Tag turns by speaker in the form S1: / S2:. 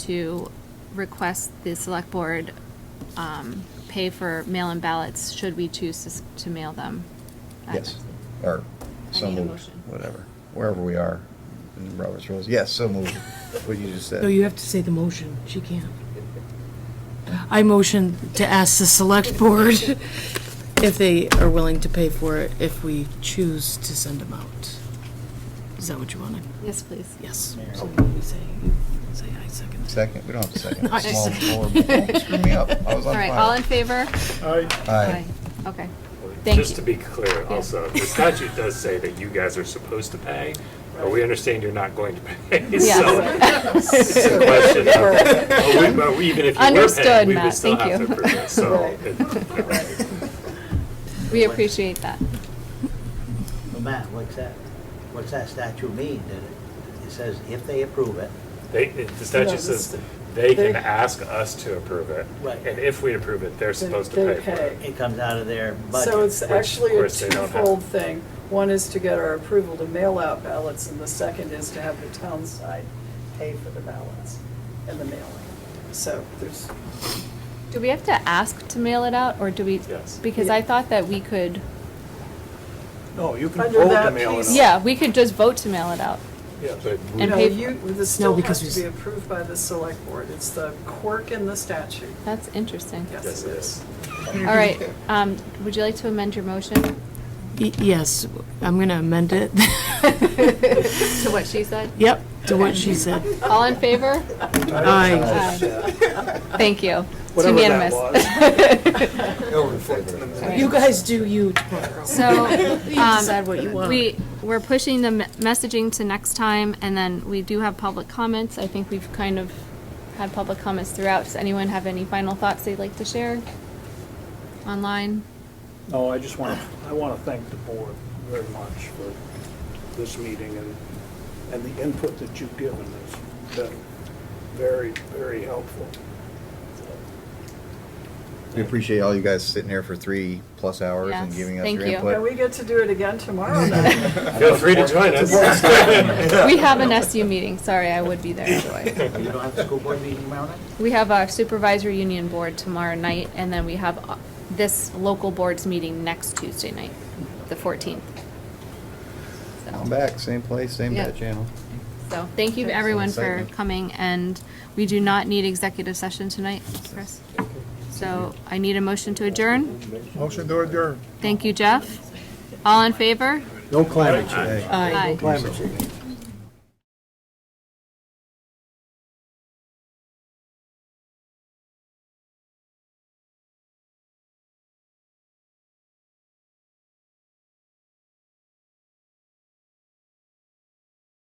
S1: to request the select board um, pay for mail-in ballots, should we choose to s- to mail them. at
S2: Yes,
S1: next- I
S2: or so
S1: need a
S2: moved,
S1: motion.
S2: whatever, wherever we are in Robert's rules. Yes, so moved, what you just said.
S3: No, you have to say the motion. She can't. I motion to ask the select board if they are willing to pay for it if we choose to send them out. Is that what you wanted?
S1: Yes, please.
S3: Yes. So what do we say? Say I second. that.
S2: Second, we don't have a second.
S3: I
S2: Small,
S3: said-
S2: horrible, don't screw me up, I was
S1: All
S2: on
S1: right, all in
S2: fire.
S1: favor?
S2: Aye.
S1: Aye. Okay, thank you.
S4: Just to be clear, also, the statute does say that you guys are supposed to pay, but we understand you're not going to pay. So it's a question of, but we- but even if you were
S1: Understood,
S4: paying, we
S1: Matt,
S4: would still
S1: thank
S4: have to
S1: you.
S4: approve it. So it-
S1: we appreciate that.
S5: Well, Matt, what's that, what's that statute mean? That it- It says if they approve it,
S4: they, it- the statute says they can ask us to approve it.
S5: Right.
S4: And if we approve it, they're supposed to
S6: They
S4: pay for it.
S6: pay.
S5: it comes out of their budget.
S6: So it's
S4: Which, of
S6: actually a
S4: course, they don't have.
S6: twofold thing. One is to get our approval to mail out ballots, and the second is to have the town side pay for the ballots and the mailing. So there's,
S1: Do we have to ask to mail it out, or do we?
S4: Yes.
S1: Because I thought that we could,
S7: No, you can
S6: Under
S7: vote to
S6: that
S7: mail it
S6: piece-
S7: out.
S1: yeah, we could just vote to mail it out.
S4: Yeah, but
S1: And
S6: no,
S1: pay-
S6: you, this still has
S3: because
S6: to
S3: we-
S6: be approved by the select board. It's the quirk in the statute.
S1: That's interesting.
S6: Yes,
S4: Yes,
S6: it
S4: it
S6: is.
S1: All right, um, would you like to amend your motion
S3: Y- Yes, I'm going to amend it.
S1: to what she said?
S3: Yep, to what she said.
S1: All in favor?
S3: Aye.
S1: Thank you. It's
S7: Whatever that
S1: unanimous.
S2: Over in favor.
S3: You guys do you tomorrow.
S1: So,
S3: You
S1: um,
S3: decide what you want.
S1: we, we're pushing the me- messaging to next time, and then we do have public comments. I think we've kind of had public comments throughout. Does anyone have any final thoughts they'd like to share? Online?
S7: No, Oh, I just want, to. I want to thank the board very much for this meeting and, and the input that you've given has been very, very helpful.
S2: We appreciate all you guys sitting here for three-plus hours and
S1: Yes,
S2: giving us
S1: thank
S2: your
S1: you.
S6: And
S2: input.
S6: we get to do it again tomorrow night.
S4: feel free to join us.
S1: We have an SU meeting. Sorry, I would be there anyway.
S5: You don't have the school board meeting tomorrow night?
S1: We have our supervisory union board tomorrow night, and then we have uh, this local board's meeting next Tuesday night, the 14th. So-
S2: I'm back, same place, same
S1: Yeah.
S2: bat channel.
S1: So, thank you everyone for
S2: Excitement.
S1: coming, and we do not need executive session tonight, Chris. So I need a motion to adjourn.
S7: Motion to adjourn.
S1: Thank you, Jeff. All in favor?
S7: No climate change.
S1: Aye.
S7: Climate change.